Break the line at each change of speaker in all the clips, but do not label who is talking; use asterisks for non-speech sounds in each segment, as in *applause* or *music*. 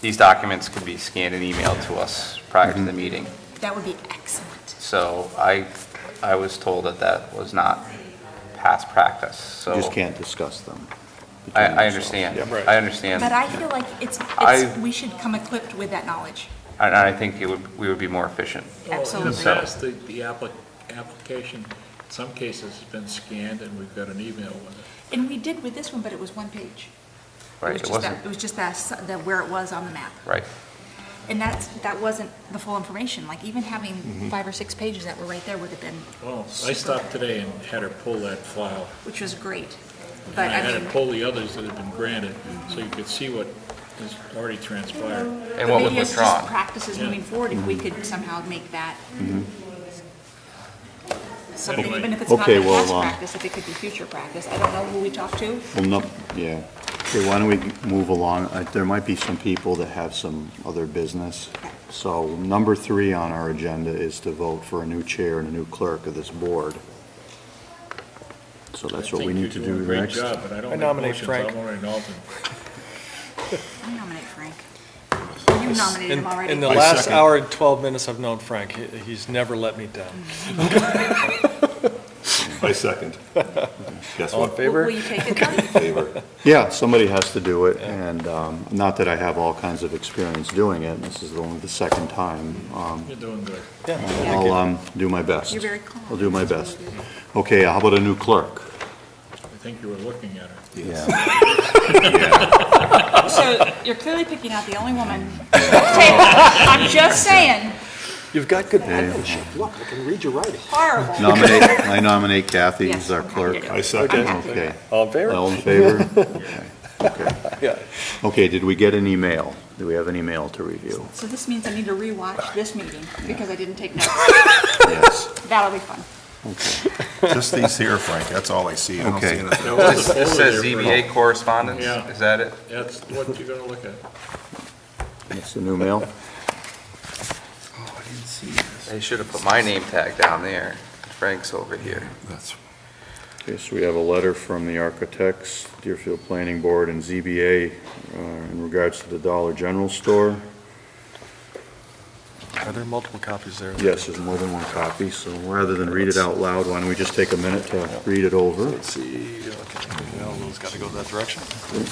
these documents could be scanned and emailed to us prior to the
Mm-hmm.
meeting.
That would be excellent.
So I, I was told that that was not past practice, so.
You just can't discuss them. between
I, I
yourselves.
understand.
Yeah.
I understand.
But I feel like it's,
I-
it's, we should come equipped with that knowledge.
And I think it would, we would be more efficient.
Absolutely.
In the past, the, the appli- application, in some cases, has been scanned, and we've got an email with it.
And we did with this one, but it was one page.
Right,
was
it
just
wasn't-
that- It was just that, s- that where it was on the map.
Right.
And that's, that wasn't the full information, like even
Mm-hmm.
having five or six pages that were right there would have been,
Well, I stopped today and had her pull that file.
which was great.
And
But I
had her
mean,
pull the others that had been granted, so you could see what has already transpired.
And
but
what was
maybe it's just
withdrawn. Mm-hmm.
practices
Yeah.
moving forward, if we could somehow make that something,
Anyway.
even if it's not
Okay,
the
well,
past
um,
practice, if it could be future practice. I don't know who we talked to.
Well, no, yeah. Okay, why don't we move along? Uh, There might be some people that have some other business. So number three on our agenda is to vote for a new chair and a new clerk of this board. So that's what we need to do next.
I think you're doing a
*laughs*
great job, but I don't
I
make
nominate
motions. I
Frank.
want an alternate.
I nominate Frank. You nominated him
In-
already.
In the
I
last
second.
hour and 12 minutes I've known Frank, he- he's never let me down.
I second. Guess
*laughs*
All in
what?
favor?
Will you take it
*laughs*
though?
Favor.
Yeah, somebody has to do it, and um, not that I have all kinds of experience doing it, this is only the second time. Um,
You're doing good.
Yeah.
I'll um, do my best.
You're very calm.
I'll do my best. Okay, how about a new clerk?
I think you were looking at her.
*laughs* Yeah.
So you're clearly picking out the
*laughs*
only woman. *laughs* I'm just saying,
You've got good penmanship.
Look, I can read your writing.
horrible.
Nominate, I nominate Kathy as our
Yes, I'm happy to
clerk.
do
I second.
Okay.
All in favor?
All in
*laughs*
favor? Okay.
Yeah.
Okay. Okay, did we get an email? Do we have an email to review?
So this means I need to rewatch this meeting because I didn't take notes.
Yes.
That'll be fun.
Just these here, Frank, that's all I see. I don't see
Okay.
anything.
There was a
This
folder
says e-
there for-
ZBA correspondence,
Yeah.
is that it?
That's what you're gonna look at.
That's the new mail?
Oh, I didn't see this.
They should have put my name tag down there. Frank's over here.
That's,
Okay, so we have a letter from the architects, Deerfield Planning Board and ZBA uh, in regards to the Dollar General store.
Are there multiple copies there?
Yes, there's more than one copy, so rather than read it out loud, why don't we just take a minute to read it over?
Let's see, okay, well, those got to go that direction.
You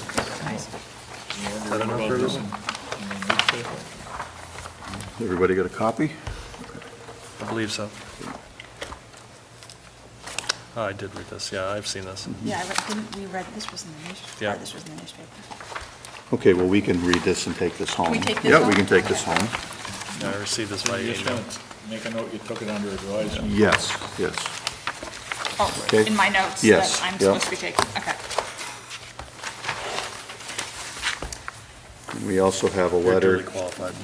wonder about this in- in the newspaper.
Everybody got a copy?
I believe so. Oh, I did read this, yeah, I've seen this.
Yeah, I read, didn't we read, this was in the
Yeah.
newspaper. This was in the newspaper.
Okay, well, we can read this and take this home.
we take this
Yeah, we
home?
can take this home.
I received this by
You just
email.
wanna make a note, you took it under advisement.
Yes, yes.
Oh,
Okay.
in my notes that
Yes,
I'm
yeah.
supposed to be taking, okay.
We also have a
You're
letter.
duly qualified.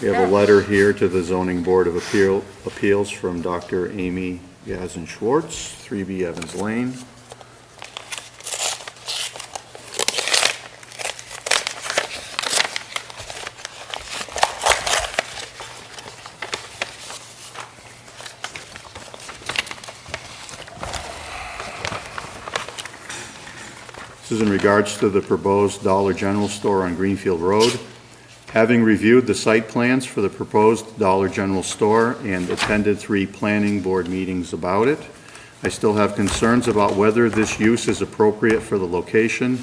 We have a letter here to the Zoning Board of Appeal, Appeals from Dr. Amy Gazin Schwartz, 3B Evans Lane. This is in regards to the proposed Dollar General store on Greenfield Road. Having reviewed the site plans for the proposed Dollar General store and attended three planning board meetings about it, I still have concerns about whether this use is appropriate for the location,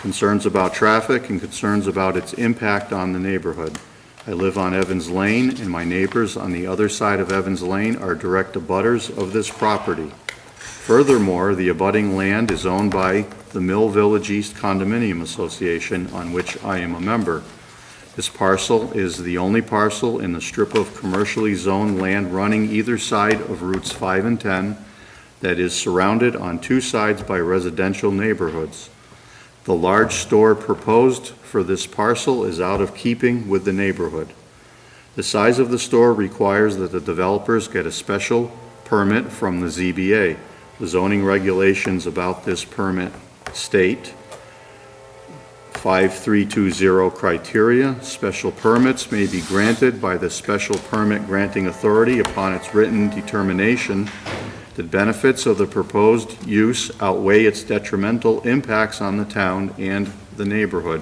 concerns about traffic, and concerns about its impact on the neighborhood. I live on Evans Lane, and my neighbors on the other side of Evans Lane are direct abutters of this property. Furthermore, the abutting land is owned by the Mill Village East Condominium Association, on which I am a member. This parcel is the only parcel in the strip of commercially zoned land running either side of Routes 5 and 10 that is surrounded on two sides by residential neighborhoods. The large store proposed for this parcel is out of keeping with the neighborhood. The size of the store requires that the developers get a special permit from the ZBA. The zoning regulations about this permit state 5320 criteria, special permits may be granted by the special permit granting authority upon its written determination that benefits of the proposed use outweigh its detrimental impacts on the town and the neighborhood.